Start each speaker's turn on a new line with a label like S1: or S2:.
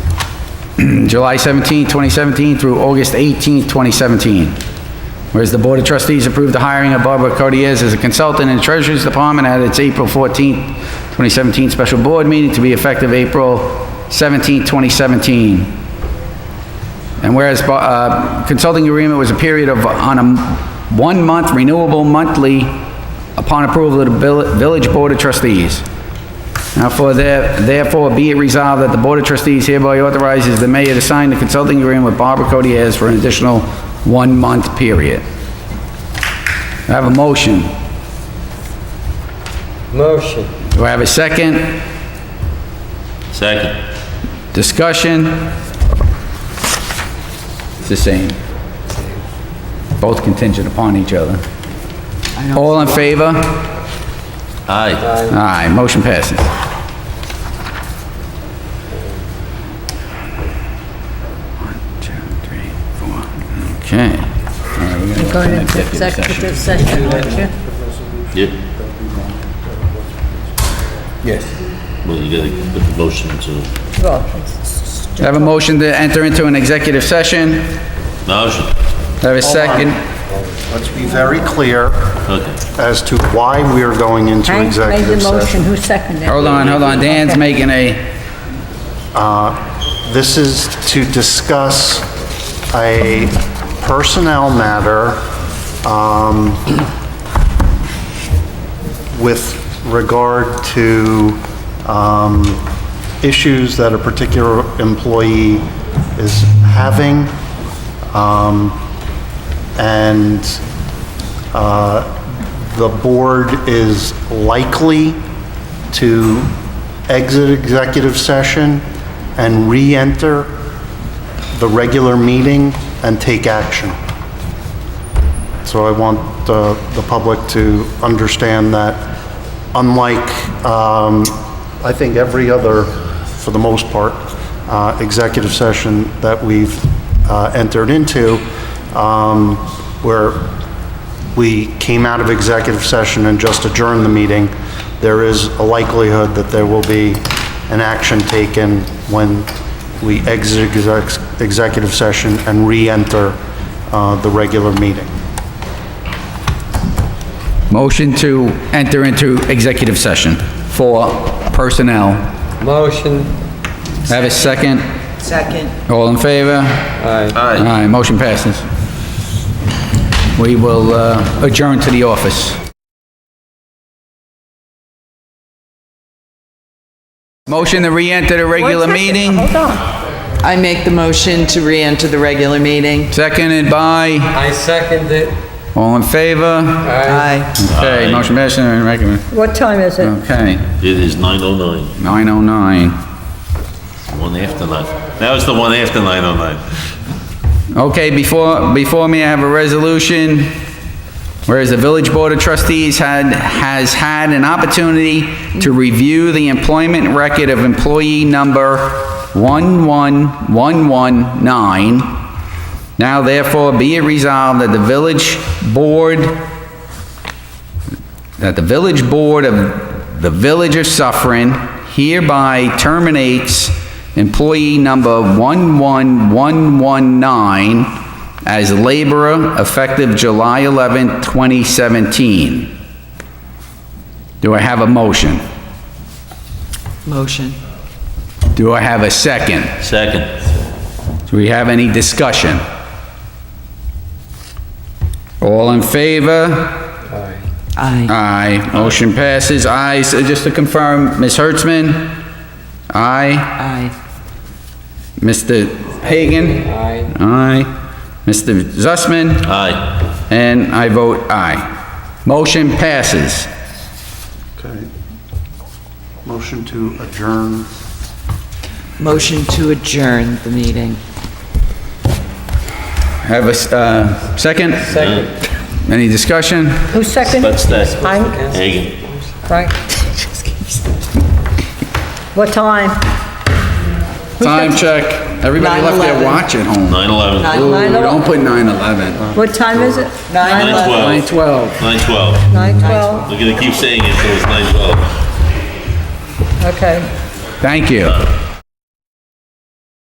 S1: July 17, 2017 through August 18, 2017. Whereas the Board of Trustees approved the hiring of Barbara Codiers as a consultant in the Treasury's Department at its April 14, 2017 special board meeting to be effective April 17, 2017. And whereas uh, consulting agreement was a period of, on a one-month renewable monthly upon approval of the Vill- Village Board of Trustees. Now for there- therefore be it resolved that the Board of Trustees hereby authorizes the mayor to sign the consulting agreement with Barbara Codiers for an additional one-month period. I have a motion.
S2: Motion.
S1: Do I have a second?
S3: Second.
S1: Discussion? It's the same. Both contingent upon each other. All in favor?
S3: Aye.
S1: Aye, motion passes. One, two, three, four. Okay. All right, we're gonna go
S4: Going
S1: to
S4: into
S1: executive session.
S4: executive session, aren't you?
S3: Yeah.
S2: Yes.
S3: Well, you gotta put the motion to,
S4: Well, it's-
S1: Do I Have a motion to enter into an executive session? Do
S3: motion,
S1: I Have a second?
S5: Let's be very clear
S3: okay.
S5: as to why we are going into
S4: Hank made the
S5: executive
S4: motion,
S5: session.
S4: who seconded it?
S1: Hold on, hold on, Dan's
S4: Okay.
S1: making a,
S5: This is to discuss a personnel matter um, with regard to um, issues that a particular employee is having. um, And uh, the board is likely to exit executive session and re-enter the regular meeting and take action. So I want uh, the public to understand that unlike, um, I think, every other, for the most part, uh, executive session that we've uh, entered into, um, where we came out of executive session and just adjourned the meeting, there is a likelihood that there will be an action taken when we exit exec- executive session and re-enter uh, the regular meeting.
S1: motion to enter into executive session for personnel.
S2: Motion.
S1: Do I Have a second?
S6: Second.
S1: All in favor?
S2: Aye.
S1: Aye, motion passes. We will uh, adjourn to the office. Motion to re-enter the regular meeting,
S6: I make the motion to re-enter the regular meeting.
S1: seconded by,
S2: I second it.
S1: all in favor?
S6: Aye.
S1: Okay,
S3: Aye.
S1: motion passes, and recommend-
S4: What time is it?
S1: okay,
S3: It is 9:09,
S1: 9:09.
S3: one after nine. Now it's the one after 9:09.
S1: Okay, before, before me, I have a resolution. Whereas the Village Board of Trustees had, has had an opportunity to review the employment record of employee number 11119, now therefore be it resolved that the Village Board that the village board of the Village of Suffering hereby terminates employee number 11119 as laborer effective July 11, 2017. Do I have a motion?
S6: Motion.
S1: Do I have a second?
S3: Second.
S1: Do we have any discussion? All in favor?
S6: Aye.
S1: Aye, motion passes. Aye, so just to confirm, Ms. Hertzman? Aye.
S6: Aye.
S1: Mr. Hagan?
S2: Aye.
S1: Aye. Mr. Zussman?
S3: Aye.
S1: And I vote aye. Motion passes.
S5: Okay. Motion to adjourn.
S6: Motion to adjourn the meeting.
S1: Have a, s- uh, second?
S2: Second.
S1: Any discussion?
S4: Who seconded?
S3: That's that.
S4: Hank,
S3: Hagan.
S4: right? What time?
S1: Time check. Everybody left their
S6: 9:11.
S1: watch at home.
S3: 9:11.
S1: Ooh,
S4: 9:11.
S1: don't put 9/11.
S4: What time is it?
S6: Nine eleven.
S3: 9:12.
S1: 9/12.
S3: 9:12.
S4: Nine twelve,
S3: We're gonna keep saying it until it's 9:12.
S4: okay.
S1: Thank you.